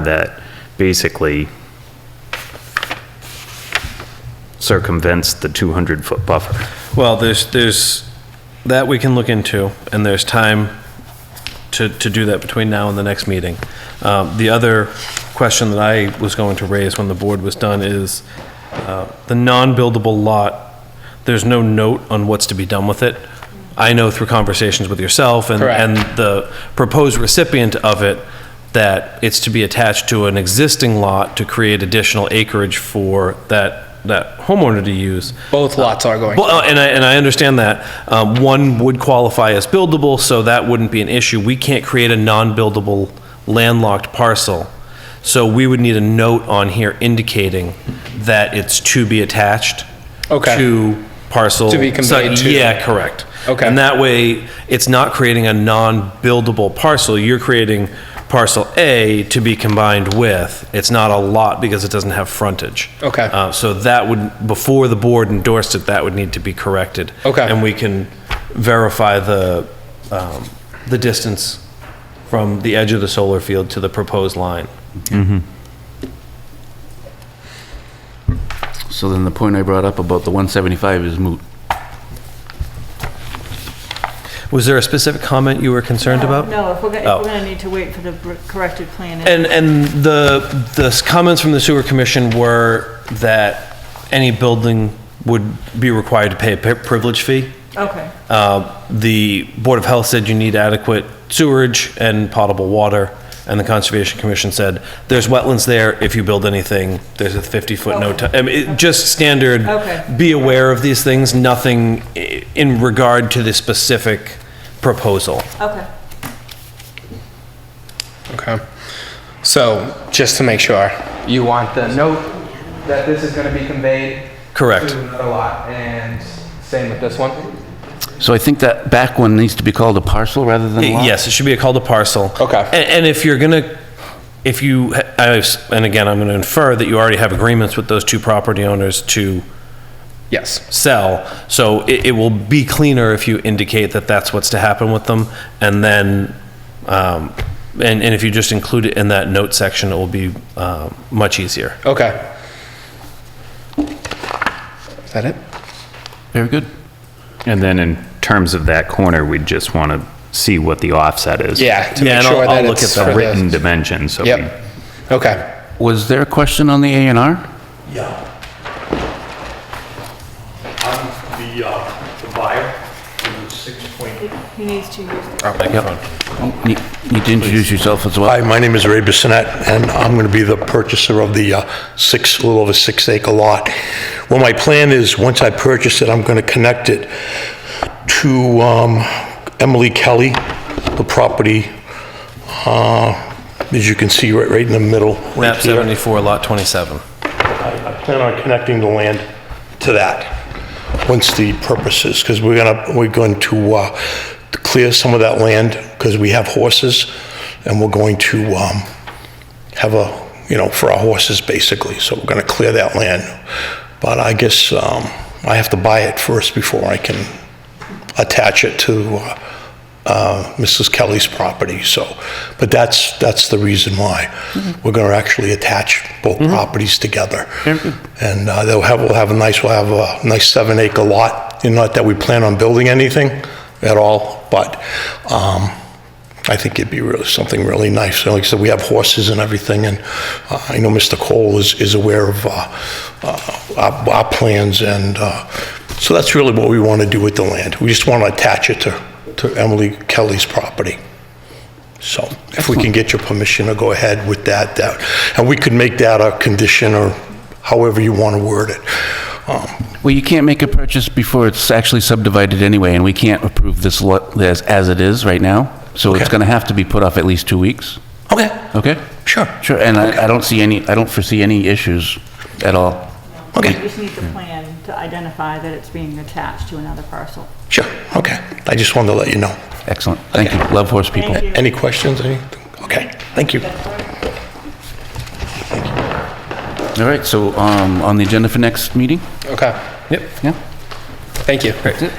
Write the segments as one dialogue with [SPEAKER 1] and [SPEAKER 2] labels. [SPEAKER 1] that basically circumvents the 200-foot buffer.
[SPEAKER 2] Well, there's, there's, that we can look into, and there's time to, to do that between now and the next meeting. Um, The other question that I was going to raise when the board was done is, uh, the non-buildable lot, there's no note on what's to be done with it. I know through conversations with yourself and,
[SPEAKER 3] Correct.
[SPEAKER 2] and the proposed recipient of it, that it's to be attached to an existing lot to create additional acreage for that, that homeowner to use.
[SPEAKER 3] Both lots are going.
[SPEAKER 2] Well, uh, and I, and I understand that. Um, One would qualify as buildable, so that wouldn't be an issue. We can't create a non-buildable landlocked parcel. So we would need a note on here indicating that it's to be attached
[SPEAKER 3] Okay.
[SPEAKER 2] to parcel.
[SPEAKER 3] To be conveyed
[SPEAKER 2] so-
[SPEAKER 3] to.
[SPEAKER 2] Yeah, correct.
[SPEAKER 3] Okay.
[SPEAKER 2] And that way, it's not creating a non-buildable parcel. You're creating parcel A to be combined with. It's not a lot because it doesn't have frontage.
[SPEAKER 3] Okay.
[SPEAKER 2] Uh, so that would, before the board endorsed it, that would need to be corrected.
[SPEAKER 3] Okay.
[SPEAKER 2] And we can verify the, um, the distance from the edge of the solar field to the proposed line.
[SPEAKER 4] So then the point I brought up about the 175 is moot.
[SPEAKER 2] Was there a specific comment you were concerned about?
[SPEAKER 5] Uh, No, if we're gonna,
[SPEAKER 2] Oh.
[SPEAKER 5] if we're gonna need to wait for the br- corrected plan.
[SPEAKER 2] And, and the, the comments from the sewer commission were that any building would be required to pay a pri- privilege fee.
[SPEAKER 5] Okay,
[SPEAKER 2] Uh, The Board of Health said you need adequate sewerage and potable water, and the Conservation Commission said, there's wetlands there, if you build anything, there's a 50-foot no, tou-" I mean, it- just standard,
[SPEAKER 5] Okay.
[SPEAKER 2] be aware of these things, nothing i- in regard to the specific proposal.
[SPEAKER 5] okay.
[SPEAKER 3] Okay. So, just to make sure. You want the note that this is going to be conveyed.
[SPEAKER 2] Correct.
[SPEAKER 3] To another lot, and same with this one?
[SPEAKER 4] So I think that back one needs to be called a parcel rather than a lot?
[SPEAKER 2] Yes, it should be a call to parcel.
[SPEAKER 3] Okay.
[SPEAKER 2] And, and if you're gonna, if you, I was- and again, I'm gonna infer that you already have agreements with those two property owners to
[SPEAKER 3] Yes.
[SPEAKER 2] sell, so it, it will be cleaner if you indicate that that's what's to happen with them, and then, um, and, and if you just include it in that note section, it will be, uh, much easier.
[SPEAKER 3] Okay. Is that it?
[SPEAKER 4] Very good.
[SPEAKER 1] And then in terms of that corner, we'd just want to see what the offset is.
[SPEAKER 3] Yeah. To
[SPEAKER 2] Yeah, and
[SPEAKER 3] make
[SPEAKER 2] I'll-
[SPEAKER 3] sure
[SPEAKER 2] I'll
[SPEAKER 3] that
[SPEAKER 2] look
[SPEAKER 3] it's
[SPEAKER 2] at the
[SPEAKER 3] for the-
[SPEAKER 1] Written dimensions, so we
[SPEAKER 3] Yep. Okay.
[SPEAKER 4] Was there a question on the A and R?
[SPEAKER 6] Yeah. I'm the, uh, the buyer, and it's six point.
[SPEAKER 5] He needs to use
[SPEAKER 2] Microphone.
[SPEAKER 4] Need need to introduce yourself as well.
[SPEAKER 6] Hi, my name is Ray Bissonette, and I'm going to be the purchaser of the uh, six, a little over six acre lot. Well, my plan is, once I purchase it, I'm going to connect it to um, Emily Kelly, the property, uh, as you can see, right, right in the middle. right
[SPEAKER 2] Map
[SPEAKER 6] here.
[SPEAKER 2] seventy-four, lot twenty-seven.
[SPEAKER 6] I I plan on connecting the land to that, once the purpose is, because we're gonna, we're going to uh, clear some of that land, because we have horses, and we're going to um, have a, you know, for our horses, basically, so we're gonna clear that land. But I guess um, I have to buy it first before I can attach it to uh, uh, Mrs. Kelly's property, so, but that's, that's the reason why. We're going to actually attach both properties together. And uh, they'll have, we'll have a nice, we'll have a nice seven acre lot, and not that we plan on building anything at all, but um, I think it'd be really, something really nice. And Like I said, we have horses and everything, and uh, I know Mr. Cole is, is aware of uh, uh, our, our plans, and uh, so that's really what we want to do with the land. We just want to attach it to, to Emily Kelly's property. So if we can get your permission to go ahead with that, that, and we could make that a condition or however you want to word it. Um,
[SPEAKER 4] Well, you can't make a purchase before it's actually subdivided anyway, and we can't approve this lot as, as it is right now. So it's
[SPEAKER 6] Okay.
[SPEAKER 4] going to have to be put off at least two weeks,
[SPEAKER 6] Okay,
[SPEAKER 4] okay?
[SPEAKER 6] sure,
[SPEAKER 4] Sure, and I, I don't see any, I don't foresee any issues at all.
[SPEAKER 5] We
[SPEAKER 6] okay,
[SPEAKER 5] just need the plan to identify that it's being attached to another parcel.
[SPEAKER 6] sure, okay. I just wanted to let you know.
[SPEAKER 4] Excellent, thank you, love horse people.
[SPEAKER 5] Thank you.
[SPEAKER 6] Any questions, Any? Okay, thank you.
[SPEAKER 4] All right, so, um, on the agenda for next meeting?
[SPEAKER 3] Okay.
[SPEAKER 2] Yep.
[SPEAKER 4] Yeah?
[SPEAKER 3] Thank you.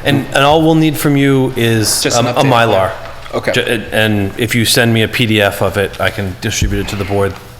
[SPEAKER 2] And, and all we'll need from you is
[SPEAKER 3] Just
[SPEAKER 2] um,
[SPEAKER 3] an
[SPEAKER 2] a
[SPEAKER 3] update.
[SPEAKER 2] Mylar.
[SPEAKER 3] Okay.
[SPEAKER 2] Ju- And and if you send me a PDF of it, I can distribute it to the board